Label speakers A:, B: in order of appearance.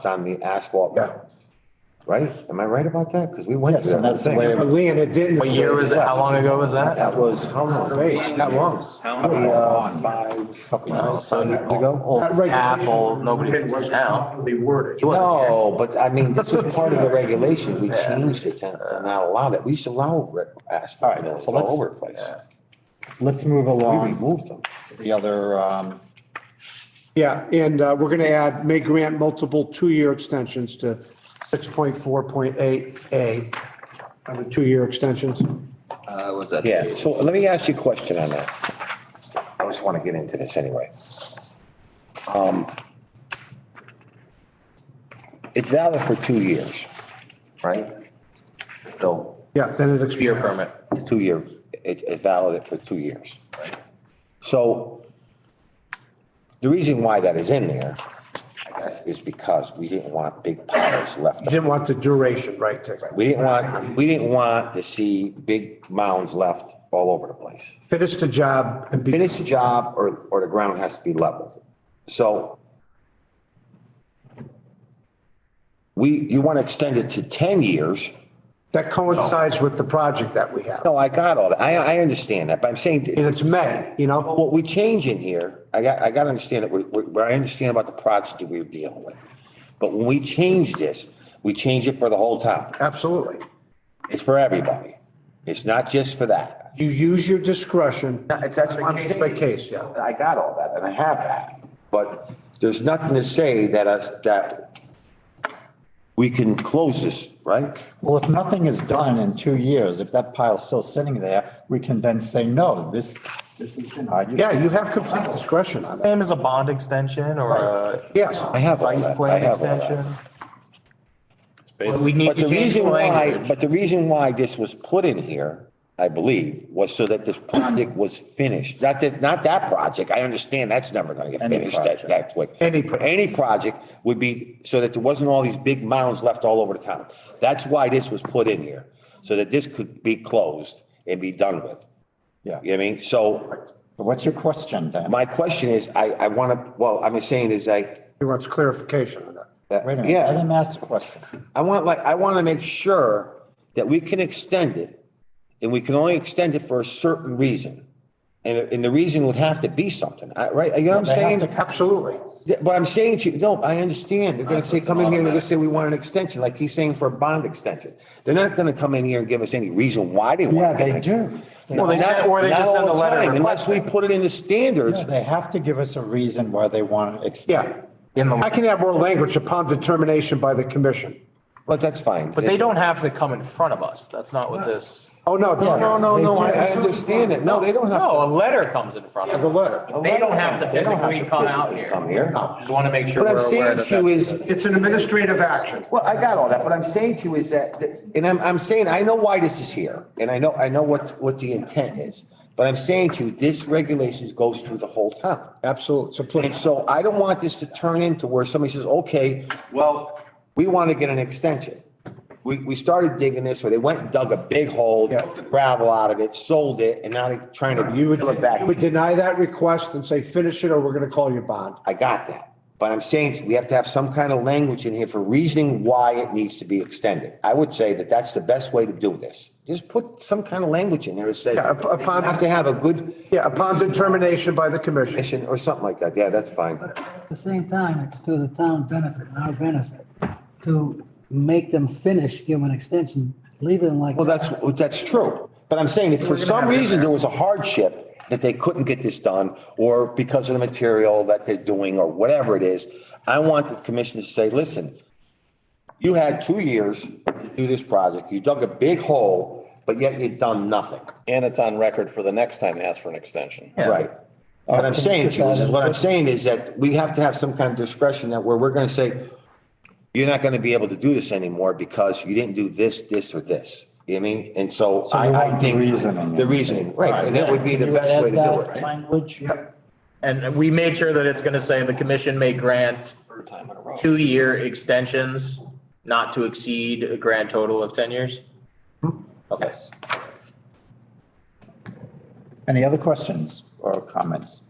A: crushed on the asphalt,
B: Yeah.
A: right? Am I right about that? Because we went
B: Yes,
A: through
B: and
A: that
B: that's the
A: thing.
B: way, but Lee and it didn't.
C: What year was it? How long ago was that?
A: That was how long?
B: Wait, that long.
D: How many?
B: Maybe, uh, Five.
A: Couple
C: No,
A: months
C: so
A: ago?
C: old
B: That regulation-
C: apple, nobody gets it now.
E: properly worded.
C: He wasn't here.
A: No, but I mean, this was part of the regulations. We
C: Yeah.
A: changed it to to not allow that. We used to allow re- asphalt mills all over the place.
B: Let's move
A: We
B: along.
A: removed them.
F: The other, um,
B: Yeah, and uh, we're going to add, may grant multiple two-year extensions to 6.4.8A, of the two-year extensions.
D: Uh, was that?
A: Yeah, so let me ask you a question on that. I just want to get into this anyway. Um, It's valid for two years, right? So
B: Yeah, then it expires.
C: Beer permit.
A: two year, it, it's valid for two years. So the reason why that is in there, I guess, is because we didn't want big piles left.
B: You Didn't want the duration, right? to-
A: We didn't want, we didn't want to see big mounds left all over the place.
B: Finish the job and be,
A: Finish the job or, or the ground has to be leveled. So we, you want to extend it to 10 years?
B: that coincides with the project that we have.
A: No, I got all that. I, I understand that, but I'm saying.
B: And it's May, you know?
A: What we change in here, I got, I got to understand that, we- we- where I understand about the project that we're dealing with. But when we change this, we change it for the whole town.
B: Absolutely.
A: It's for everybody. It's not just for that.
B: You use your discretion
A: That's
B: on a case by case, yeah.
A: I got all that and I have that. But there's nothing to say that us, that we can close this, right?
F: well, if nothing is done in two years, if that pile's still sitting there, we can then say, no, this, this is denied.
B: Yeah, you have complete discretion on that.
C: Same as a bond extension or a
B: Yes.
A: I have all that.
C: site
A: I
C: plan
A: have all that.
C: extension.
D: basically-
C: We need
A: But
C: to
A: the
C: change the
A: reason why,
C: language.
A: but the reason why this was put in here, I believe, was so that this project was finished. Not that, not that project. I understand that's never gonna get
F: Any
A: finished that,
F: project.
A: that quick.
B: Any
A: But
B: pro-
A: Any project would be so that there wasn't all these big mounds left all over the town. That's why this was put in here, so that this could be closed and be done with.
F: Yeah.
A: You know what I mean? So
F: What's your question then?
A: my question is, I, I wanna, well, I'm saying is I,
B: He wants clarification on that.
A: that-
F: Wait a minute,
A: yeah.
F: let him ask the question.
A: I want like, I want to make sure that we can extend it and we can only extend it for a certain reason. And, and the reason would have to be something, I- right? You know what I'm
F: They
A: saying?
F: have to-
B: Absolutely.
A: But I'm saying to you, no, I understand. They're gonna say, come in here and they're gonna say, we want an extension, like he's saying for a bond extension. They're not gonna come in here and give us any reason why they
F: Yeah,
A: want.
F: they do.
C: Well, they send, or they
A: Not
C: just
A: all
C: send a
A: the
C: letter.
A: time, Unless we
C: requesting.
A: put it in the standards.
F: Yeah, They have to give us a reason why they want to extend.
B: Yeah.
C: In the-
B: I can have more language upon determination by the commission.
A: But that's fine.
C: But they don't have to come in front of us. That's not what this.
B: Oh, no.
A: No, no, no, no, I, I
B: They do.
A: understand it. No, they don't have.
C: No, a letter comes in front of
B: The
C: us.
B: letter.
C: They don't have to
A: They don't have to
C: physically come out
A: physically
C: here.
A: Come here.
C: Just want to make sure
A: What I'm
C: we're
A: saying
C: aware that
A: to you
C: that's-
A: is,
B: It's an administrative action.
A: Well, I got all that. What I'm saying to you is that, and I'm, I'm saying, I know why this is here, and I know, I know what, what the intent is. But I'm saying to you, this regulation goes through the whole town.
B: Absolutely. Ah, So
A: And
B: please,
A: so I don't want this to turn into where somebody says, okay, well, we want to get an extension. We, we started digging this, or they went and dug a big hole,
B: Yeah.
A: took the gravel out of it, sold it, and now they're trying to.
B: you would,
A: peel it back.
B: you would deny that request and say, finish it or we're going to call you bond.
A: I got that. But I'm saying we have to have some kind of language in here for reasoning why it needs to be extended. I would say that that's the best way to do this. Just put some kind of language in there that says,
B: Yeah, up-
A: you
B: upon-
A: have to have a good
B: Yeah, upon determination by the commission.
A: mission or something like that. Yeah, that's fine.
G: At the same time, it's to the town benefit, and our benefit, to make them finish, give them an extension, leave it like.
A: Well, that's, that's true. But I'm saying if for some reason there was a hardship that they couldn't get this done or because of the material that they're doing or whatever it is, I want the commission to say, listen, you had two years to do this project. You dug a big hole, but yet you've done nothing.
H: And it's on record for the next time they ask for an extension.
A: Right. What I'm saying to you is, what I'm saying is that we have to have some kind of discretion that where we're going to say, you're not going to be able to do this anymore because you didn't do this, this, or this. You know what I mean? And so
F: you
A: I, I
F: want the
A: think.
F: reasoning.
A: The reasoning, right. And that would be the best way to do it, right?
G: Language.
C: And we made sure that it's gonna say the commission may grant two-year extensions not to exceed a grand total of ten years? Okay.
F: Any other questions or comments?